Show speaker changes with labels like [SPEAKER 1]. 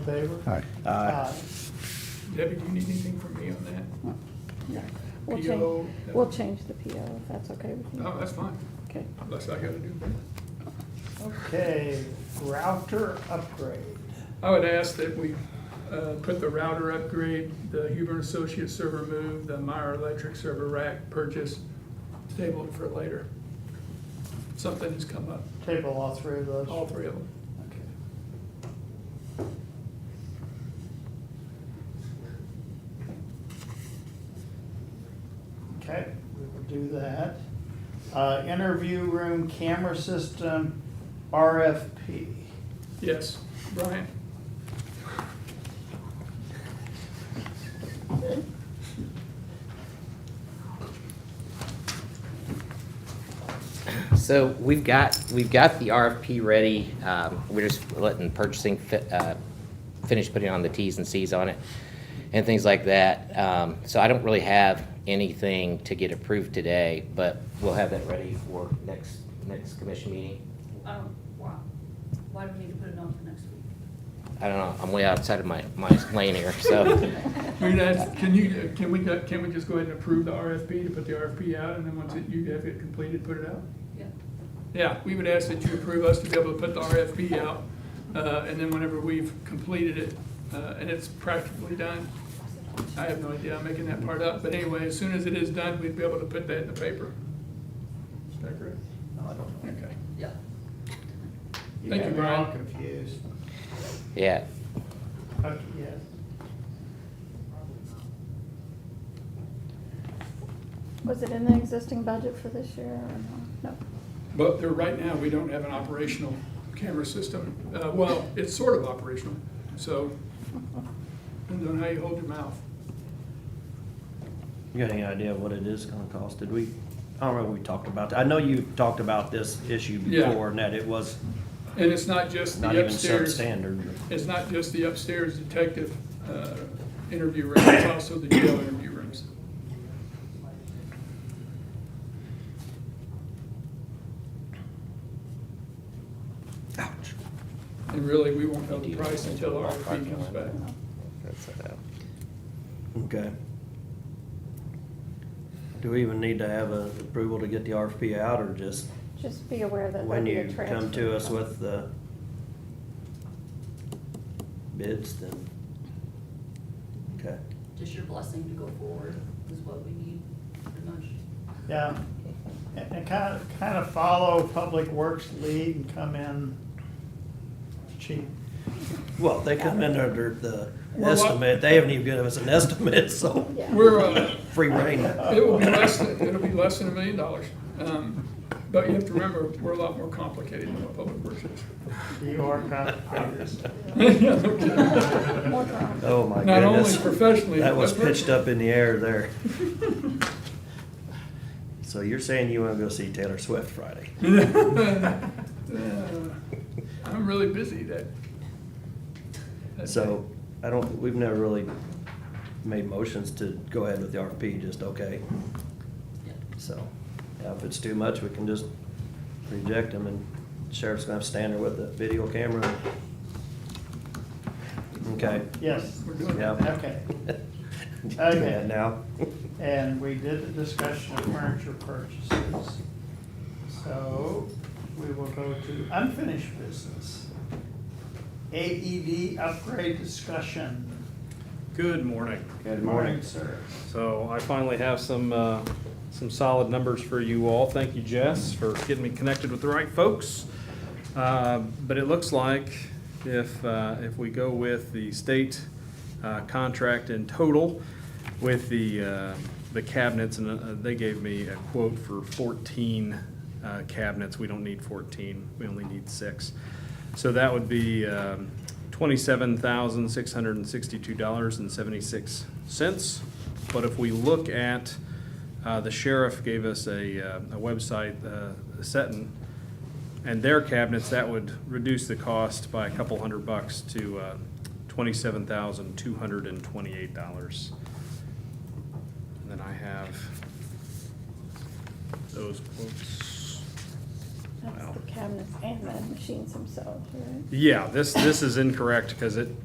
[SPEAKER 1] in favor?
[SPEAKER 2] Aye.
[SPEAKER 1] Aye.
[SPEAKER 3] Debbie, do you need anything from me on that?
[SPEAKER 4] No. We'll
[SPEAKER 3] PO.
[SPEAKER 4] change, we'll change the PO if that's okay with you.
[SPEAKER 3] No, Oh, that's fine,
[SPEAKER 4] Okay.
[SPEAKER 3] unless I gotta do that.
[SPEAKER 1] Okay, router upgrade.
[SPEAKER 3] I would ask that we uh, put the router upgrade, the Huber and Associates server move, the Meyer Electric server rack purchase, table it for later. Something has come up,
[SPEAKER 1] Table all three of those.
[SPEAKER 3] all three of them.
[SPEAKER 1] Okay. Okay, we will do that. Uh, interview room camera system, RFP.
[SPEAKER 3] Yes, Brian?
[SPEAKER 5] So we've got, we've got the RFP ready. Um, We're just letting purchasing fi- uh, finish putting on the Ts and Cs on it and things like that. Um, So I don't really have anything to get approved today, but we'll have that ready for next, next commission meeting.
[SPEAKER 6] Um, why, why do we need to put it on for next week?
[SPEAKER 5] I don't know, I'm way outside of my, my lane here, so.
[SPEAKER 3] I mean, that's, can you, can we, can we just go ahead and approve the RFP, to put the RFP out, and then once it- you have it completed, put it out?
[SPEAKER 6] Yeah.
[SPEAKER 3] Yeah, we would ask that you approve us to be able to put the RFP out, uh, and then whenever we've completed it, uh, and it's practically done, I have no idea, I'm making that part up, but anyway, as soon as it is done, we'd be able to put that in the paper. Is that correct?
[SPEAKER 1] No, I don't know.
[SPEAKER 3] Okay.
[SPEAKER 6] Yeah.
[SPEAKER 3] Thank you,
[SPEAKER 1] got me all
[SPEAKER 3] Brian.
[SPEAKER 1] Confused.
[SPEAKER 5] Yeah,
[SPEAKER 1] Okay, yes.
[SPEAKER 4] Was it in the existing budget for this year or no? No.
[SPEAKER 3] But there, right now, we don't have an operational camera system. Uh, well, it's sort of operational, so, depends on how you hold your mouth.
[SPEAKER 7] You got any idea what it is gonna cost? Did we, I don't remember if we talked about that. I know you talked about this issue
[SPEAKER 3] Yeah.
[SPEAKER 7] before and that it was
[SPEAKER 3] And it's not just
[SPEAKER 7] not
[SPEAKER 3] the
[SPEAKER 7] even
[SPEAKER 3] upstairs.
[SPEAKER 7] substandard. but-
[SPEAKER 3] It's not just the upstairs detective uh, interview room, it's also the jail interview rooms. Ouch. And really, we won't know the price until RFP comes back.
[SPEAKER 5] that's, uh,
[SPEAKER 7] Okay. Do we even need to have a approval to get the RFP out or just
[SPEAKER 4] Just be aware that there'll
[SPEAKER 7] when
[SPEAKER 4] be
[SPEAKER 7] you
[SPEAKER 4] a transfer.
[SPEAKER 7] come to us with the bids then? Okay.
[SPEAKER 6] Just your blessing to go forward is what we need pretty much.
[SPEAKER 1] Yeah, and, and kind of, kind of follow Public Works lead and come in cheap.
[SPEAKER 7] Well, they come in under the
[SPEAKER 3] Well, what-
[SPEAKER 7] estimate. They haven't even given us an estimate, so
[SPEAKER 4] Yeah.
[SPEAKER 3] We're, uh,
[SPEAKER 7] free reign.
[SPEAKER 3] it will be less, than- it'll be less than a million dollars. Um, But you have to remember, we're a lot more complicated than what Public Works
[SPEAKER 1] You are complicated.
[SPEAKER 3] is. Yeah, no kidding.
[SPEAKER 4] More drama.
[SPEAKER 7] Oh, my
[SPEAKER 3] Not only
[SPEAKER 7] goodness.
[SPEAKER 3] professionally.
[SPEAKER 7] That was
[SPEAKER 3] but-
[SPEAKER 7] pitched up in the air there. So you're saying you wanna go see Taylor Swift Friday?
[SPEAKER 3] Uh, I'm really busy that. that
[SPEAKER 7] So, I don't, we've never really made motions to go ahead with the RFP, just okay.
[SPEAKER 6] Yeah.
[SPEAKER 7] So, yeah, if it's too much, we can just reject them and sheriff's gonna have to stand there with the video camera. Okay.
[SPEAKER 1] Yes,
[SPEAKER 3] day. We're doing that.
[SPEAKER 7] Yeah.
[SPEAKER 1] okay.
[SPEAKER 7] Doing
[SPEAKER 1] Okay.
[SPEAKER 7] that Now.
[SPEAKER 1] And we did the discussion of furniture purchases. So we will go to unfinished business. AED upgrade discussion.
[SPEAKER 8] Good morning.
[SPEAKER 1] Good morning, sir.
[SPEAKER 8] So I finally have some, uh, some solid numbers for you all. Thank you, Jess, for getting me connected with the right folks. Uh, But it looks like if, uh, if we go with the state uh, contract in total with the, uh, the cabinets, and uh, they gave me a quote for 14 uh, cabinets. We don't need 14, we only need six. So that would be um, $27,662.76. But if we look at, uh, the sheriff gave us a, uh, a website, uh, Seton, and their cabinets, that would reduce the cost by a couple hundred bucks to uh, $27,228. And then I have those quotes.
[SPEAKER 4] That's the cabinets and the machines themselves, right?
[SPEAKER 8] Yeah, this, this is incorrect because it,